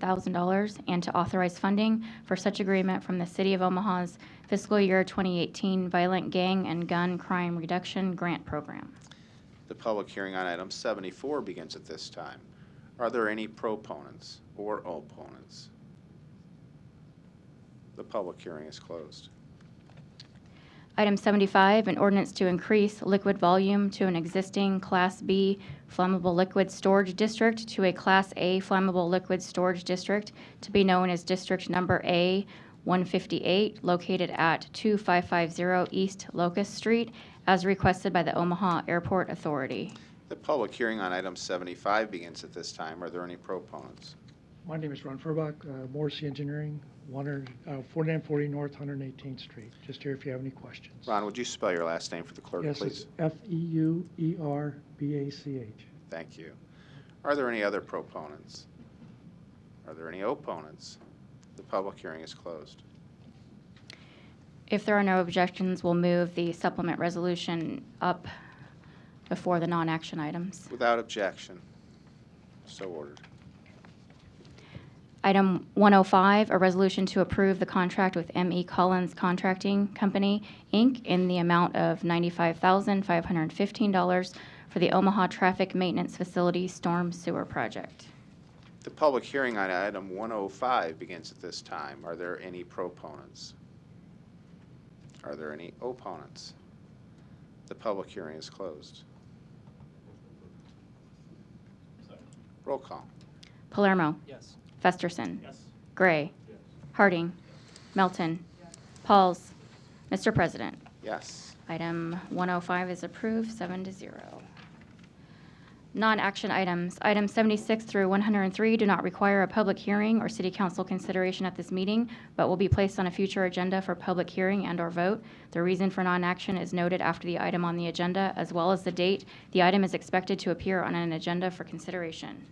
$27,000 and to authorize funding for such agreement from the City of Omaha's fiscal year 2018 Violent Gang and Gun Crime Reduction Grant Program. The public hearing on item 74 begins at this time. Are there any proponents or opponents? The public hearing is closed. Item 75, an ordinance to increase liquid volume to an existing Class B flammable liquid storage district to a Class A flammable liquid storage district to be known as District Number A 158, located at 2550 East Locust Street, as requested by the Omaha Airport Authority. The public hearing on item 75 begins at this time. Are there any proponents? My name is Ron Furbach, uh, Morrissey Engineering, 100 uh, 4940 North 118th Street. Just here if you have any questions. Ron, would you spell your last name for the clerk, Yes, please? it's E F-E-U-E-R-B-A-C-H. Thank you. Are there any other proponents? Are there any opponents? The public hearing is closed. If there are no objections, we'll move the supplement resolution up before the non-action items. Without objection, so ordered. Item 105, a resolution to approve the contract with M.E. Collins Contracting Company, Inc., in the amount of $95,515 for the Omaha Traffic Maintenance Facility Storm Sewer Project. The public hearing on item 105 begins at this time. Are there any proponents? Are there any opponents? The public hearing is closed. Roll call. Palermo. Yes. Festerson. Yes. Gray. Harding. Melton. Pauls. Mr. President. Yes. Item 105 is approved, seven to zero. Non-action items. Items 76 through 103 do not require a public hearing or city council consideration at this meeting, but will be placed on a future agenda for public hearing and/or vote. The reason for non-action is noted after the item on the agenda, as well as the date the item is expected to appear on an agenda for consideration.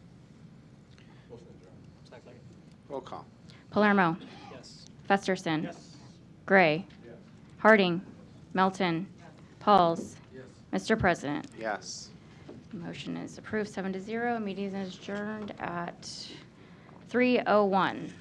Second. Roll call. Palermo. Yes. Festerson. Gray. Harding. Melton. Pauls. Mr. President. Yes. oh Motion is approved, seven to zero. Meeting is adjourned at 3:01.